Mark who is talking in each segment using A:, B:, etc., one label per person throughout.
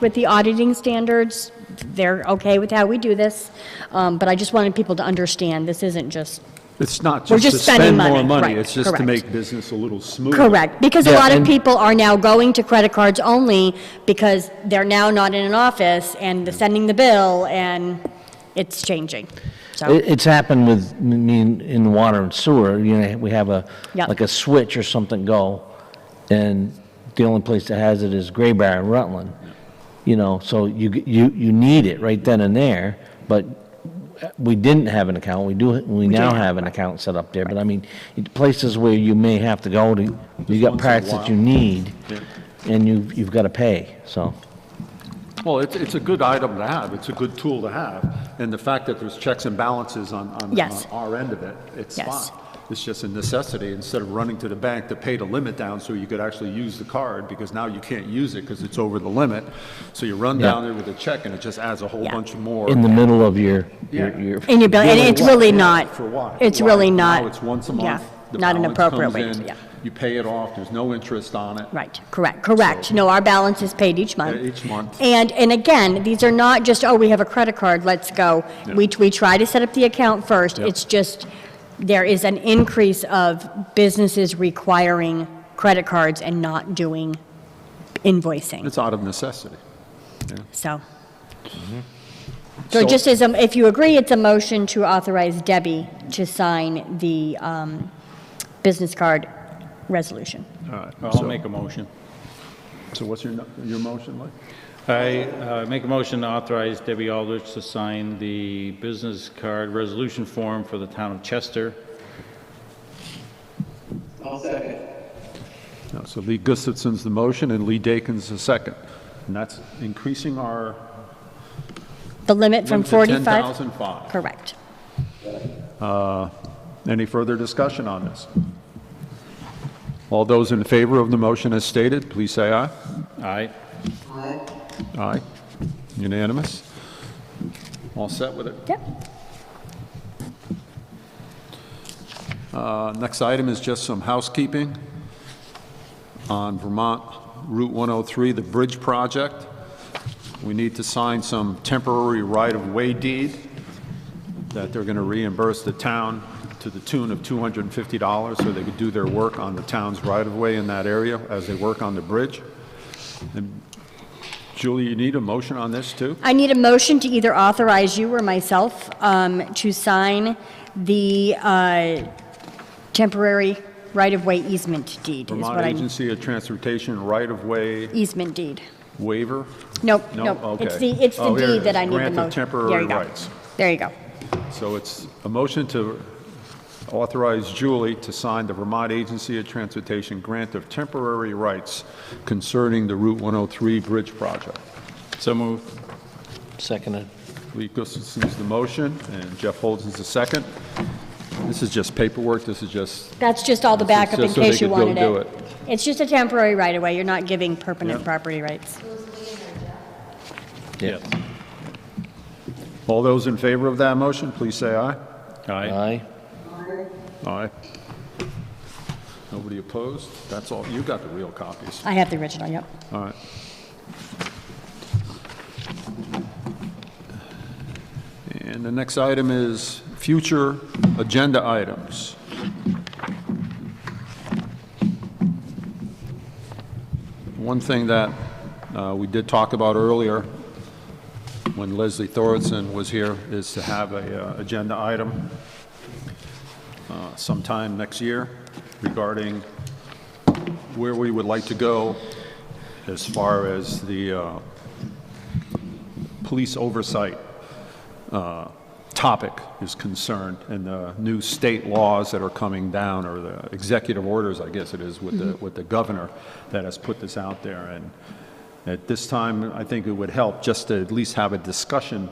A: with the auditing standards. They're okay with how we do this, Um, but I just wanted people to understand, this isn't just,
B: It's not
A: We're
B: just to
A: just spending
B: spend more
A: money,
B: money,
A: right,
B: it's just to
A: correct.
B: make business a little smoother.
A: correct, because a
C: Yeah,
A: lot of
C: and-
A: people are now going to credit cards only because they're now not in an office, and they're sending the bill, and it's changing, so.
C: It- It's happened with me in- in water and sewer, you know, we have a,
A: Yep.
C: like a switch or something go, and the only place that has it is Gray Bar in Rutland, you know, so you, g- you, you need it right then and there, but we didn't have an account, we do, we now have an account set up there, but I mean, it- places where you may have to go to, you got
B: once in a
C: parts that you
B: while.
C: need,
B: Yeah.
C: and you, you've got to pay, so.
B: Well, it's, it's a good item to have, it's a good tool to have, and the fact that there's checks and balances on, on
A: Yes.
B: on our end of it, it's
A: Yes.
B: fine. It's just a necessity, instead of running to the bank to pay the limit down so you could actually use the card, because now you can't use it because it's over the limit. So you run
C: Yeah.
B: down there with a check and it just adds a whole
A: Yeah.
B: bunch more.
C: In the middle of your, your,
B: Yeah.
C: your.
A: In your bill, and
B: For
A: it's
B: what?
A: really
B: Yeah,
A: not,
B: For what?
A: it's
B: Why?
A: really
B: Now it's
A: not,
B: once a
A: yeah,
B: month. the
A: not an
B: balance
A: appropriate
B: comes
A: way, to-
B: in,
A: yeah.
B: You pay it off, there's no interest on it.
A: Right, correct, correct. No, our balance is paid each month.
B: Yeah, each month.
A: And, and again, these are not just, oh, we have a credit card, let's go. We, we try to set up the account first. It's just, there is an increase of businesses requiring credit cards and not doing invoicing,
B: It's out of necessity.
A: so. So
B: Mm-hmm. So-
A: it just is, um, if you agree, it's a motion to authorize Debbie to sign the um, business card resolution.
D: All right,
B: So-
D: I'll make a motion.
B: So what's your, no- your motion, Mike?
D: I uh, make a motion to authorize Debbie Aldrich to sign the business card resolution form for the town of Chester.
E: I'll second.
B: No, So Lee Gustafson's the motion and Lee Dakin's the second. And that's increasing our
A: The limit from
B: limit to
A: 45?
B: 10,005.
A: Correct.
B: Any further discussion on this? All those in favor of the motion as stated, please say aye.
D: Aye.
B: Aye. Unanimous? All set with it?
A: Yep.
B: Uh, Next item is just some housekeeping on Vermont Route 103, the bridge project. We need to sign some temporary right-of-way deed that they're going to reimburse the town to the tune of $250 so they could do their work on the town's right-of-way in that area as they work on the bridge. And Julie, you need a motion on this, too?
A: I need a motion to either authorize you or myself um, to sign the uh, temporary right-of-way easement deed. is
B: Vermont
A: what I-
B: Agency of Transportation Right-of-Way
A: Easement deed.
B: Waiver.
A: Nope,
B: No?
A: nope. It's the,
B: Okay.
A: it's the
B: Oh, here it
A: deed that
B: is.
A: I need the motion.
B: Grant of temporary
A: There you go.
B: rights.
A: There you go.
B: So it's a motion to authorize Julie to sign the Vermont Agency of Transportation Grant of Temporary Rights concerning the Route 103 Bridge Project.
D: So moved.
C: Seconded.
B: Lee Gustafson's the motion, and Jeff Holden's the second. This is just paperwork, this is just,
A: That's just all the
B: This is
A: backup in
B: just so they
A: case you
B: could go
A: wanted
B: do
A: it.
B: it.
A: It's just a temporary right-of-way. You're not giving permanent
B: Yeah.
A: property rights.
C: Yeah.
B: all those in favor of that motion, please say aye.
D: Aye.
C: Aye.
B: Aye. Nobody opposed? That's all, you got the real copies.
A: I have the original, yep.
B: All right. And the next item is future agenda items. One thing that uh, we did talk about earlier, when Leslie Thorson was here, is to have a uh, agenda item uh, sometime next year regarding where we would like to go as far as the uh, police oversight uh, topic is concerned and the new state laws that are coming down, or the executive orders, I guess it is, with the, with the governor that has put this out there. And at this time, I think it would help just to at least have a discussion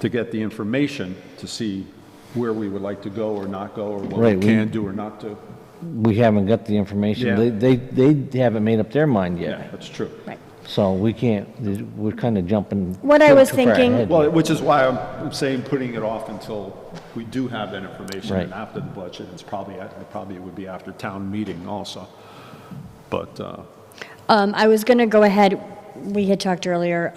B: to get the information to see where we would like to go or not go, or what
C: Right,
B: we
C: we-
B: can do or not do.
C: We haven't got the information.
B: Yeah.
C: They, they, they haven't made up their mind
B: Yeah,
C: yet.
B: that's true.
A: Right.
C: So we can't, we're kind of jumping.
A: What I was
C: too far
A: thinking-
C: ahead.
B: Well, which is why I'm saying putting it off until we do have that information and
C: Right.
B: after the budget, it's probably, it probably would be after town meeting also. But, uh,
A: Um, I was going to go ahead, we had talked earlier